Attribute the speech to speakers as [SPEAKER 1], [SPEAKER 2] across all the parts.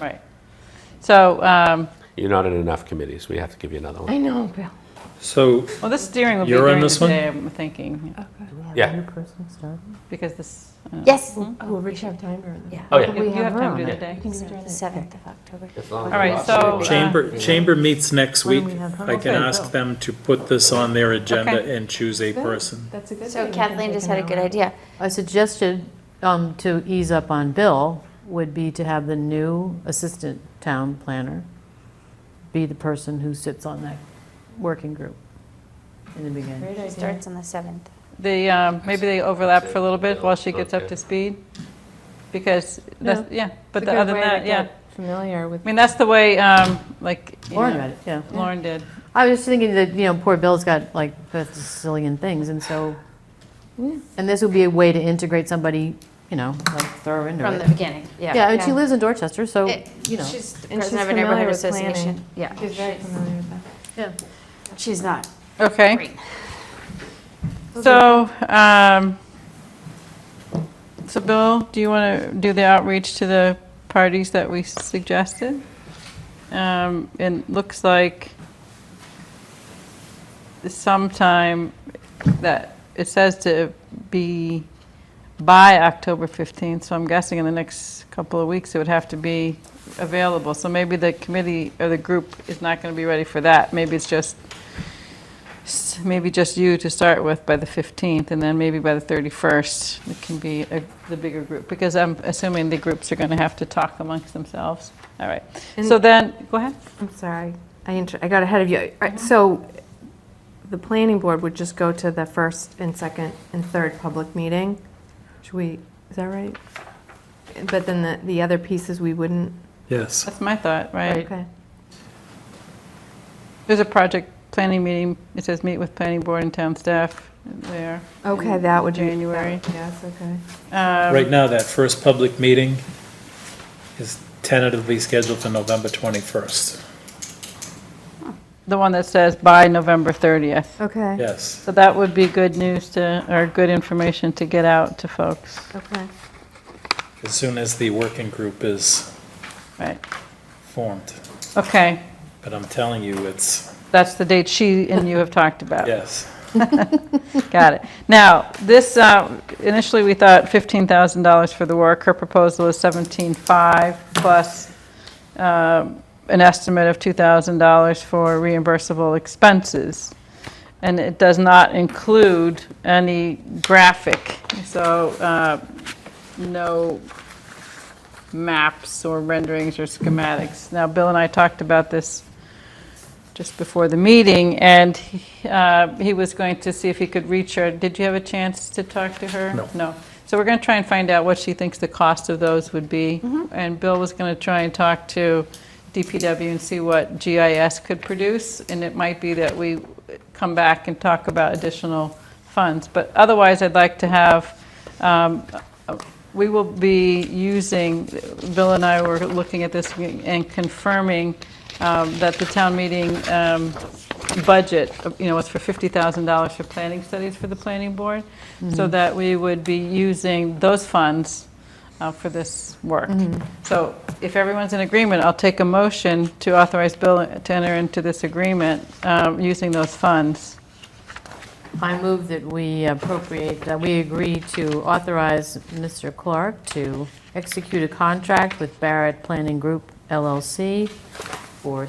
[SPEAKER 1] Right. So, um,
[SPEAKER 2] You're not in enough committees. We have to give you another
[SPEAKER 3] I
[SPEAKER 2] one.
[SPEAKER 3] know, Bill.
[SPEAKER 4] So
[SPEAKER 1] well, this steering will be
[SPEAKER 4] You're on
[SPEAKER 1] during the
[SPEAKER 4] this one?
[SPEAKER 1] day, I'm thinking,
[SPEAKER 2] Yeah.
[SPEAKER 1] because this, I don't know.
[SPEAKER 5] Yes.
[SPEAKER 3] Oh, we should have time during the day.
[SPEAKER 2] Oh, yeah.
[SPEAKER 1] You- you have time during the
[SPEAKER 3] room.
[SPEAKER 1] day.
[SPEAKER 3] We can do it during
[SPEAKER 5] The
[SPEAKER 3] the day.
[SPEAKER 5] seventh of October.
[SPEAKER 6] Oh,
[SPEAKER 2] All
[SPEAKER 1] right, so, uh,
[SPEAKER 4] chamber, chamber meets next
[SPEAKER 3] Why don't
[SPEAKER 4] week.
[SPEAKER 3] we have her?
[SPEAKER 4] I can
[SPEAKER 1] Okay.
[SPEAKER 4] ask them to put this on their agenda
[SPEAKER 1] Okay.
[SPEAKER 4] and choose a
[SPEAKER 3] Good.
[SPEAKER 4] person.
[SPEAKER 3] That's a good
[SPEAKER 5] So
[SPEAKER 3] thing. We can
[SPEAKER 5] Kathleen
[SPEAKER 3] take
[SPEAKER 5] just
[SPEAKER 3] an
[SPEAKER 5] had a good
[SPEAKER 3] hour.
[SPEAKER 5] idea.
[SPEAKER 6] I suggested, um, to ease up on Bill, would be to have the new assistant town planner be the person who sits on that working group in the beginning.
[SPEAKER 3] Great
[SPEAKER 5] It
[SPEAKER 3] idea.
[SPEAKER 5] starts on the seventh.
[SPEAKER 1] the, um, maybe they overlap for a little bit while she gets up
[SPEAKER 2] Okay.
[SPEAKER 1] to speed. Because, that's- yeah, but
[SPEAKER 3] It's a
[SPEAKER 1] the-
[SPEAKER 3] good
[SPEAKER 1] other than
[SPEAKER 3] way to
[SPEAKER 1] that, yeah.
[SPEAKER 3] get Familiar with.
[SPEAKER 1] I mean, that's the way, um, like, you
[SPEAKER 6] Lauren
[SPEAKER 1] know,
[SPEAKER 6] read it, yeah.
[SPEAKER 1] Lauren did.
[SPEAKER 6] I was just thinking that, you know, poor Bill's got like a zillion things, and so, and this would be a way to integrate somebody, you know, like throw her into
[SPEAKER 3] From the
[SPEAKER 6] it.
[SPEAKER 3] beginning, yeah.
[SPEAKER 6] Yeah, and she lives in Dorchester, so,
[SPEAKER 5] It-
[SPEAKER 6] you know.
[SPEAKER 5] She's
[SPEAKER 3] And she's
[SPEAKER 5] president of a
[SPEAKER 3] familiar
[SPEAKER 5] neighborhood
[SPEAKER 3] with planning.
[SPEAKER 5] association. Yeah.
[SPEAKER 3] She's very familiar with that.
[SPEAKER 6] Yeah.
[SPEAKER 5] She's not.
[SPEAKER 1] Okay.
[SPEAKER 3] Great.
[SPEAKER 1] So, um, so Bill, do you want to do the outreach to the parties that we suggested? Um, And looks like sometime that, it says to be by October 15th, so I'm guessing in the next couple of weeks, it would have to be available. So maybe the committee or the group is not going to be ready for that. Maybe it's just s- maybe just you to start with by the 15th, and then maybe by the 31st, it can be a- the bigger group, because I'm assuming the groups are going to have to talk amongst themselves. All right. So
[SPEAKER 7] And-
[SPEAKER 1] then, go ahead.
[SPEAKER 7] I'm sorry, I, inter- I got ahead of you. All right, So the planning board would just go to the first and second and third public meeting? Should we, is that right? But then the, the other pieces, we wouldn't?
[SPEAKER 4] Yes.
[SPEAKER 1] That's my thought, right?
[SPEAKER 7] Okay.
[SPEAKER 1] There's a project planning meeting, it says meet with planning board and town staff there.
[SPEAKER 7] Okay,
[SPEAKER 1] in
[SPEAKER 7] that would be.
[SPEAKER 1] January.
[SPEAKER 7] Yes, okay.
[SPEAKER 1] Um,
[SPEAKER 3] Um,
[SPEAKER 4] Right now, that first public meeting is tentatively scheduled for November 21st.
[SPEAKER 1] The one that says by November 30th.
[SPEAKER 7] Okay,
[SPEAKER 4] Yes.
[SPEAKER 1] So that would be good news to, or good information to get out to folks,
[SPEAKER 7] okay.
[SPEAKER 4] As soon as the working group is
[SPEAKER 1] right?
[SPEAKER 4] formed.
[SPEAKER 1] Okay,
[SPEAKER 4] But I'm telling you, it's,
[SPEAKER 1] that's the date she and you have talked about.
[SPEAKER 4] yes.
[SPEAKER 1] Got it. Now, this, uh, initially, we thought $15,000 for the work. Her proposal is 17.5 plus um, an estimate of $2,000 for reimbursable expenses. And it does not include any graphic, so uh, no maps or renderings or schematics. Now, Bill and I talked about this just before the meeting, and uh, he was going to see if he could reach her. Did you have a chance to talk to her?
[SPEAKER 4] No.
[SPEAKER 1] So we're going to try and find out what she thinks the cost of those would be. And Bill was going to try and talk to DPW and see what GIS could produce, and it might be that we come back and talk about additional funds. But otherwise, I'd like to have um, we will be using, Bill and I were looking at this and confirming um, that the town meeting um, budget, you know, was for $50,000 for planning studies for the planning board, so that we would be using those funds uh, for this work. So if everyone's in agreement, I'll take a motion to authorize Bill to enter into this agreement um, using those funds.
[SPEAKER 6] I move that we appropriate, that we agree to authorize Mr. Clark to execute a contract with Barrett Planning Group LLC for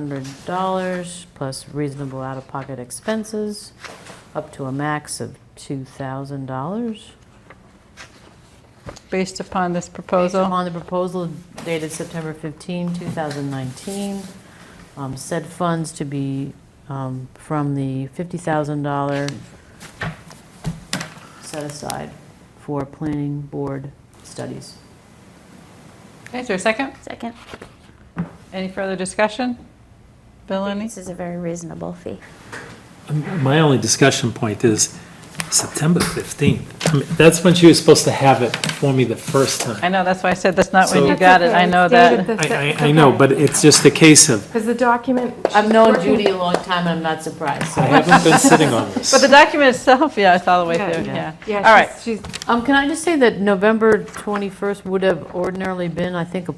[SPEAKER 6] $17,500 plus reasonable out-of-pocket expenses, up to a max of $2,000.
[SPEAKER 1] Based upon this
[SPEAKER 6] Based
[SPEAKER 1] proposal,
[SPEAKER 6] upon the proposal dated September 15, 2019, um, said funds to be um, from the $50,000 set aside for planning board studies.
[SPEAKER 1] is there a second?
[SPEAKER 5] Second.
[SPEAKER 1] Any further discussion? Bill, any?
[SPEAKER 5] This is a very reasonable fee.
[SPEAKER 4] Um, My only discussion point is September 15th. I mean, That's when she was supposed to have it for me the first
[SPEAKER 1] I
[SPEAKER 4] time.
[SPEAKER 1] know, that's why I said that's not when you
[SPEAKER 4] So-
[SPEAKER 1] got it, I know that.
[SPEAKER 4] I, I, I know, but it's just a case of,
[SPEAKER 7] Because the document.
[SPEAKER 6] I've known Judy a long time, and I'm not surprised.
[SPEAKER 4] I
[SPEAKER 6] so-
[SPEAKER 4] haven't been sitting on this.
[SPEAKER 1] But the document itself, yeah, it's all the way
[SPEAKER 7] Yeah,
[SPEAKER 1] through, yeah.
[SPEAKER 7] Yeah,
[SPEAKER 1] All right.
[SPEAKER 7] she's- she's
[SPEAKER 6] Um, Can I just say that November 21st would have ordinarily been, I think, a